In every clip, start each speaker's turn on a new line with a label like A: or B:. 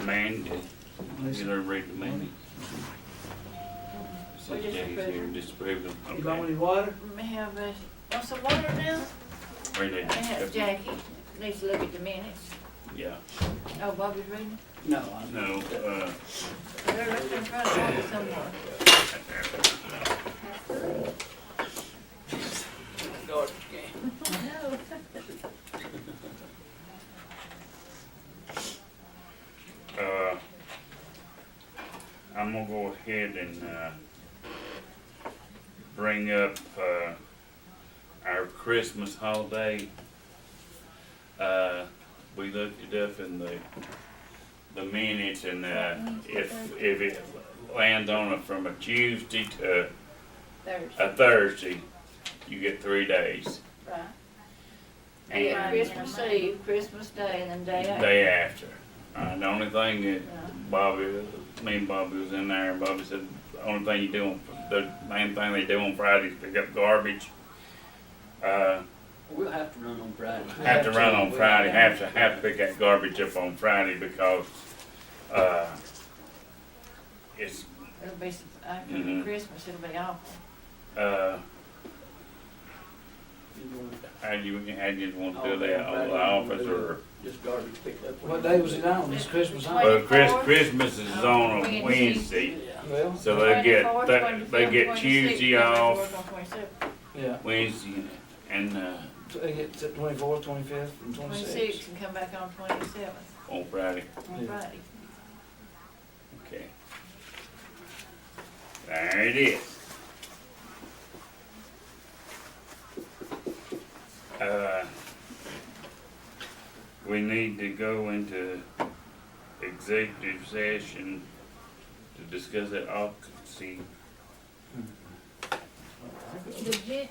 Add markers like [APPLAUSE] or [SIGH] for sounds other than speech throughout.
A: mandate. Get everybody to mandate. Six
B: just
A: days
B: approve
A: here,
B: it.
A: just approve them.
C: You want
A: Okay.
C: any water?
B: We have, uh, what's the water bill?
A: Bring that
B: I have
A: stuff.
B: Jackie, needs to look at the minutes.
A: Yeah,
B: Oh, Bobby's reading.
C: No, I
A: no, uh,
B: They're looking in front of Bobby somewhere. No.
A: uh, I'm gonna go ahead and, uh, bring up, uh, our Christmas holiday. Uh, we looked it up in the, the minutes and, uh, if, if it lands on a, from a Tuesday to
B: Thursday,
A: a Thursday, you get three days.
B: right. And
A: And
B: then Christmas Eve, Christmas Day, and then day after.
A: Day after. Uh, the only thing that Bobby, me and Bobby was in there, and Bobby said, the only thing you do, on the main thing they do on Friday is pick up garbage. Uh,
C: We'll have to run on Friday.
A: have to run on Friday, have to, have to pick that garbage up on Friday because, uh, it's,
B: It'll be, s- after
A: Mhm.
B: Christmas, it'll be awful.
A: uh,
C: to.
A: how do you, how do you want to do that, on the office or?
C: Just garbage picked up.
D: What day was it on? It's Christmas
B: Oh,
D: on?
A: Well, Chris, Christmas is on a Wednesday.
C: Yeah.
D: Well,
A: So they
B: uh,
A: get,
B: 24th,
A: they, they
B: 25th,
A: get
B: 26th,
A: Tuesday
B: because they
A: off,
B: work on 27th.
D: yeah,
A: Wednesday, and, uh,
D: so they get to twenty-fourth, twenty-fifth, and
B: Twenty-sixth
D: twenty-sixth.
B: and come back on twenty-seventh,
A: on Friday,
B: on
D: Yeah.
B: Friday.
A: okay. There it is. Uh, we need to go into executive session to discuss that occupancy.
E: The,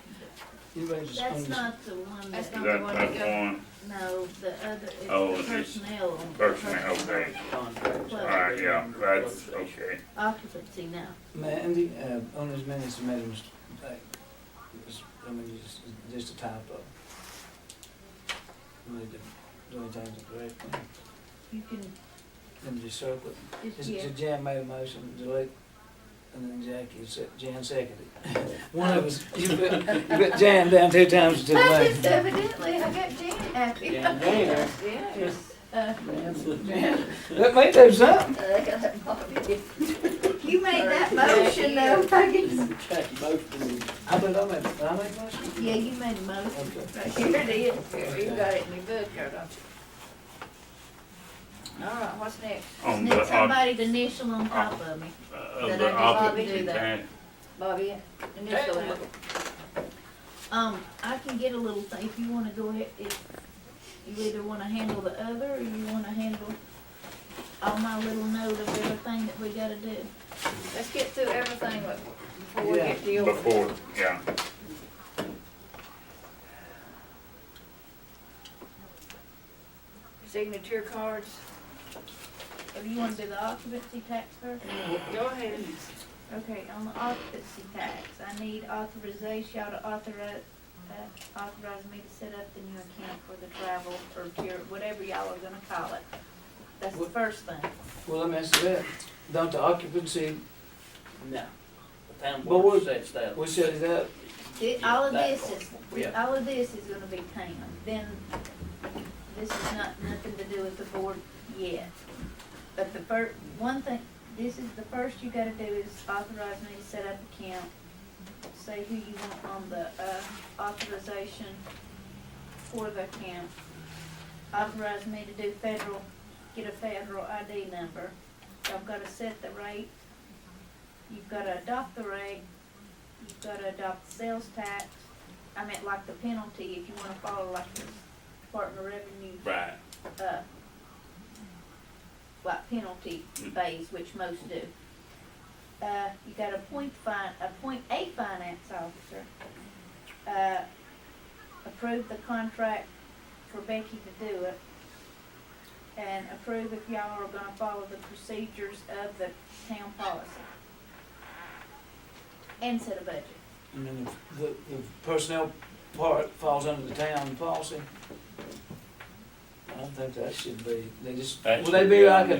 D: You ready to
E: that's
D: just,
E: not the one
B: That's
E: that,
A: Is
B: not-
A: that type one
E: no, the other,
A: Oh,
E: it's the
A: it's-
E: personnel. on the
A: personnel, okay.
C: Contracts.
A: Alright, yeah, that's, okay.
E: Occupancy now.
D: Mandy, uh, on his minutes, he made a mistake. It was- I mean, it's it's just a typo. We need to do anything to correct it.
E: You can,
D: And just circle it.
E: just,
D: Is-
E: yeah,
D: is Jan made a motion, delete, and then Jackie, se- Jan seconded. [LAUGHS] One of us, you put, you put Jan down two times to the left.
B: Evidently, I got Jan happy.
C: Down there.
B: Yes.
D: Let me do something.
E: you made that motion though, I guess.
C: Jackie, most of them.
D: I bet I made, did I make a motion?
E: Yeah, you made a motion.
D: Okay.
B: Right, here it is, you got it in your book, here, don't you? All right, what's next?
A: On Oh.
E: Need
A: the, on,
E: somebody's initial on top of me.
A: of
E: Did
A: the
E: I do
A: occupancy
E: do that?
A: tax.
B: Bobby, initial it.
E: Um, I can get a little thing, if you wanna go ahead, if you either wanna handle the other, or you wanna handle all my little note of everything that we gotta do.
B: Let's get through everything but before we
D: Yeah.
B: get to yours.
A: Before, yeah.
B: Signature cards,
E: If you wanna do the occupancy tax first?
B: go ahead.
E: Okay, on the occupancy tax, I need authorization, y'all to authorize, uh, authorize me to set up the new account for the travel or cure, whatever y'all are gonna call it. That's the
D: What-
E: first thing.
D: Well, let me ask you that. Don't the occupancy,
C: No. The town
D: But
C: board
D: we-
C: sets that.
D: we set it up,
E: Thi- all of
C: That
E: this
C: part.
E: is,
C: Yeah.
E: all of this is gonna be tamed, then, this is not, nothing to do with the board yet. But the fir, one thing, this is, the first you gotta do is authorize me to set up account, say who you want on the, uh, authorization for the account. Authorize me to do federal, get a federal ID number, I've gotta set the rate, you've gotta adopt the rate, you've gotta adopt the sales tax. I meant like the penalty, if you wanna follow like the Department of Revenue,
A: Right.
E: uh, like penalty
A: Mm.
E: phase, which most do. Uh, you gotta appoint fin, appoint a finance officer. Uh, approve the contract for Becky to do it. And approve if y'all are gonna follow the procedures of the town policy. And set a budget.
D: and then the, the personnel part falls under the town policy. I don't think that should be, they just,
A: That
D: would they
A: should
D: be
A: be
D: like
A: on
D: a
A: the-